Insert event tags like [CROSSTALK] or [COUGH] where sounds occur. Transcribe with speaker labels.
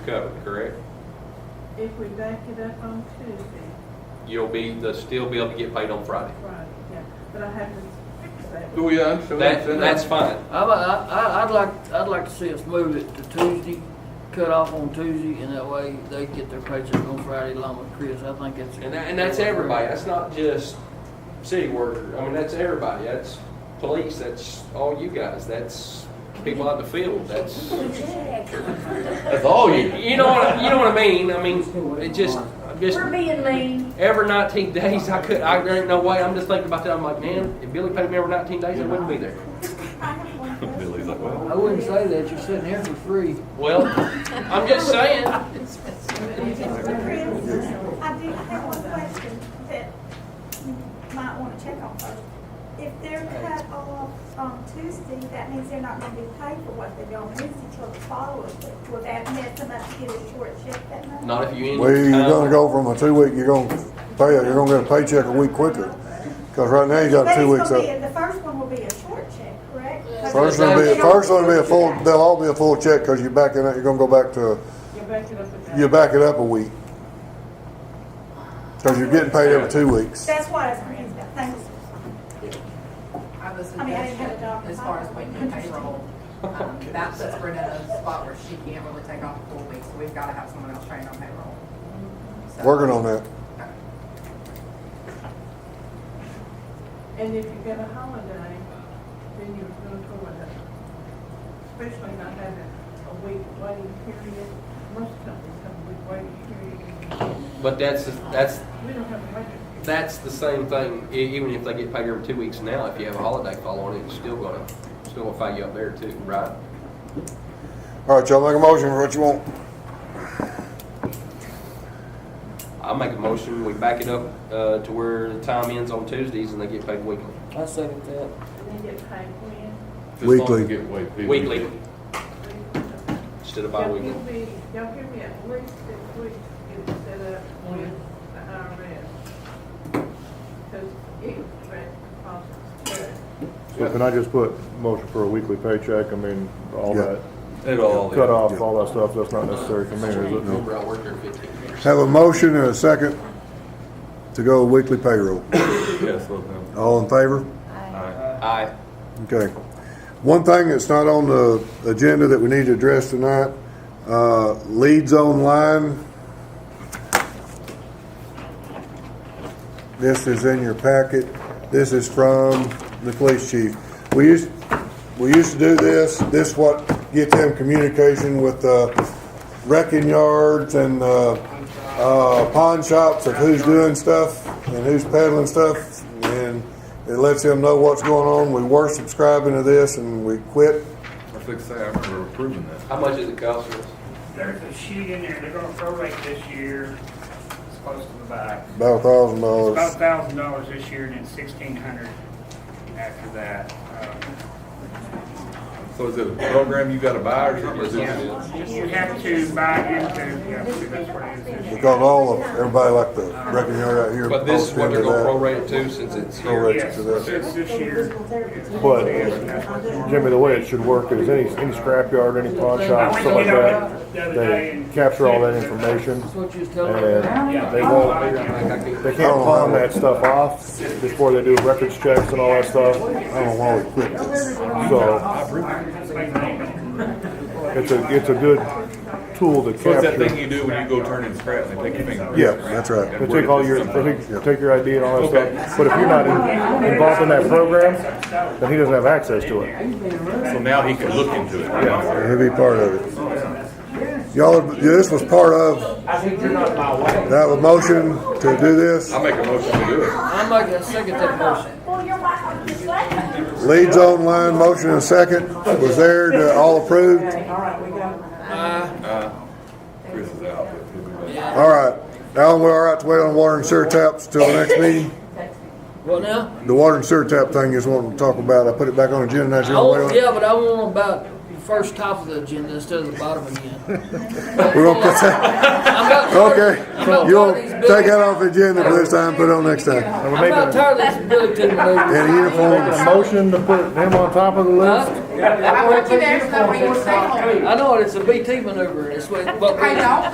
Speaker 1: covered, correct?
Speaker 2: If we back it up on Tuesday,
Speaker 1: You'll be, they'll still be able to get paid on Friday.
Speaker 2: right, yeah, but I have to fix that.
Speaker 3: Do we uh, understand?
Speaker 1: That, that's fine.
Speaker 4: I, I, I- I'd like, I'd like to see us move it to Tuesday, cut off on Tuesday, and that way they get their paycheck on Friday along with Chris. I think it's.
Speaker 1: And, that, and that's everybody. That's not just city worker. I mean, that's everybody. That's police. That's all you guys. That's people out in the field. That's
Speaker 3: That's all you.
Speaker 1: you know what you know what I mean. I mean, it just I'm just
Speaker 5: We're being mean.
Speaker 1: every 19 days I could I there ain't no way. I'm just thinking about that. I'm like, man, if Billy paid me every 19 days, I wouldn't be there.
Speaker 3: Billy's like, well.
Speaker 4: I wouldn't say that. You're sitting here for free.
Speaker 1: Well, I'm just saying.
Speaker 6: I do, I have one question that you might wanna check on first. If they're cut off on Tuesday, that means they're not gonna be paid for what they do on Wednesday till the following week. Will that mess them up to get a short check that month?
Speaker 1: Not if you end.
Speaker 7: Well, you're
Speaker 1: time.
Speaker 7: gonna go from a two week, you're gonna pay, you're gonna get a paycheck a week quicker. Cause right now you got
Speaker 6: But
Speaker 7: two
Speaker 6: it's
Speaker 7: weeks
Speaker 6: gonna be,
Speaker 7: up.
Speaker 6: the first one will be a short check, correct?
Speaker 7: First one will be, first one will be a full, they'll all be a full check, cause you're backing up, you're gonna go back to,
Speaker 2: You back it up again.
Speaker 7: you back it up a week. Cause you're getting paid every two weeks.
Speaker 6: That's what I was confused about, thanks.
Speaker 8: I was
Speaker 6: I mean, I didn't have a
Speaker 8: suggesting,
Speaker 6: dog.
Speaker 8: as far as waiting on payroll, um, that puts Brenda in a spot where she can't really take off a full week, so we've gotta have someone else trained on payroll. So-
Speaker 7: Working on that.
Speaker 2: And if you get a holiday, then you're gonna go with it. Especially not having a week waiting period. Most companies have a week waiting period.
Speaker 1: But that's that's
Speaker 2: We don't have a waiting period.
Speaker 1: that's the same thing. E- Even if they get paid every two weeks now, if you have a holiday fall on it, it's still gonna still gonna fight you up there too, right?
Speaker 7: Alright, y'all make a motion for what you want.
Speaker 1: I make a motion, we back it up uh, to where the time ends on Tuesdays and they get paid weekly.
Speaker 4: I second that.
Speaker 2: And they get paid when.
Speaker 3: Just don't
Speaker 7: Weekly.
Speaker 3: get away with it.
Speaker 1: Weekly instead of
Speaker 2: Y'all
Speaker 1: bi-weekly.
Speaker 2: give me, y'all give me at least six weeks to get it set up with the IRS. Cause it, right, costs.
Speaker 9: So can I just put motion for a weekly paycheck, I mean, all
Speaker 7: Yeah.
Speaker 9: that,
Speaker 3: At all.
Speaker 9: cut off, all that stuff, that's not necessary for me, is it?
Speaker 1: Remember, I worked there fifteen years.
Speaker 7: Have a motion and a second to go weekly payroll.
Speaker 3: Yes, let them.
Speaker 7: All in favor?
Speaker 1: Aye.
Speaker 7: Okay. One thing that's not on the agenda that we need to address tonight, uh, leads online. This is in your packet. This is from the police chief. We used, we used to do this. This what get them communication with the wrecking yards and the, uh, pawn shops of who's doing stuff and who's peddling stuff. And it lets them know what's going on. We were subscribing to this and we quit.
Speaker 3: I was gonna say, I remember approving that.
Speaker 1: How much is it cost us?
Speaker 10: There's a sheet in there, they're gonna prorate this year, it's close to the back.
Speaker 7: About a thousand
Speaker 10: It's
Speaker 7: dollars.
Speaker 10: about thousand dollars this year and then sixteen hundred after that. Um,
Speaker 3: So is it a program you gotta buy or something, or is it?
Speaker 10: yeah, You have to buy into, yeah, I believe that's what it is. this
Speaker 7: We
Speaker 10: year.
Speaker 7: got all of, everybody like the wrecking yard out here.
Speaker 1: But this is what they're gonna prorate it to since it's here.
Speaker 7: Prorate.
Speaker 10: Yes,
Speaker 7: to that.
Speaker 10: it's this year.
Speaker 9: But,
Speaker 10: That's what it's-
Speaker 9: Jimmy, the way it should work is any, any scrapyard, any pawn shop,
Speaker 10: I
Speaker 9: stuff like
Speaker 10: went to
Speaker 9: that,
Speaker 10: get on the other day
Speaker 9: they
Speaker 10: and. "Oh,
Speaker 9: capture all that information,
Speaker 4: That's what you was telling me.
Speaker 10: Yeah.
Speaker 9: and they won't, they can't
Speaker 3: Oh,
Speaker 9: pawn that stuff off before they do records checks and all that stuff,
Speaker 7: I don't know why we quit this.
Speaker 9: so it's a, it's a good tool to
Speaker 3: So it's that
Speaker 9: capture.
Speaker 3: thing you do when you go turn in scrap, and they take your finger.
Speaker 7: Yeah, that's right.
Speaker 9: They take all your, they take, take your ID and all
Speaker 3: Okay.
Speaker 9: that stuff, but if you're not in- involved in that program, then he doesn't have access to it.
Speaker 3: So now he can look into it.
Speaker 7: He'll be part of it. Y'all, this was part of,
Speaker 10: I think you're not my way.
Speaker 7: that was motion to do this.
Speaker 3: I make a motion to do it.
Speaker 4: I'm making a second that motion.
Speaker 6: Well, you're my, you're sweating.
Speaker 7: Leads online, motion and second. Was there, to- all approved?
Speaker 3: Uh, Chris is out. but he'll be back.
Speaker 7: All right. Alan, we're all right to wait on water and sewer taps till the next meeting?
Speaker 4: What now?
Speaker 7: The water and sewer tap thing is what we talk about. I put it back on the agenda. That's
Speaker 4: I
Speaker 7: the only way
Speaker 4: want,
Speaker 7: on.
Speaker 4: yeah, but I want about the first top of the agenda instead of the bottom again.
Speaker 7: [LAUGHS] We're gonna put that,
Speaker 4: I'm about tired-
Speaker 7: okay.
Speaker 4: I'm about
Speaker 7: You'll
Speaker 4: tired of these
Speaker 7: take that
Speaker 4: Billy-
Speaker 7: off the agenda for this time, put it on next time.
Speaker 9: And we're
Speaker 4: I'm
Speaker 9: making,
Speaker 4: about
Speaker 9: a-
Speaker 4: tired of this Billy Tippett.
Speaker 7: And a uniform.
Speaker 9: making a motion to put him on top of the list?
Speaker 4: Huh?
Speaker 8: I want you to ask them, what you say.
Speaker 4: I know it, it's a BT maneuver, it's what, but.
Speaker 8: I know.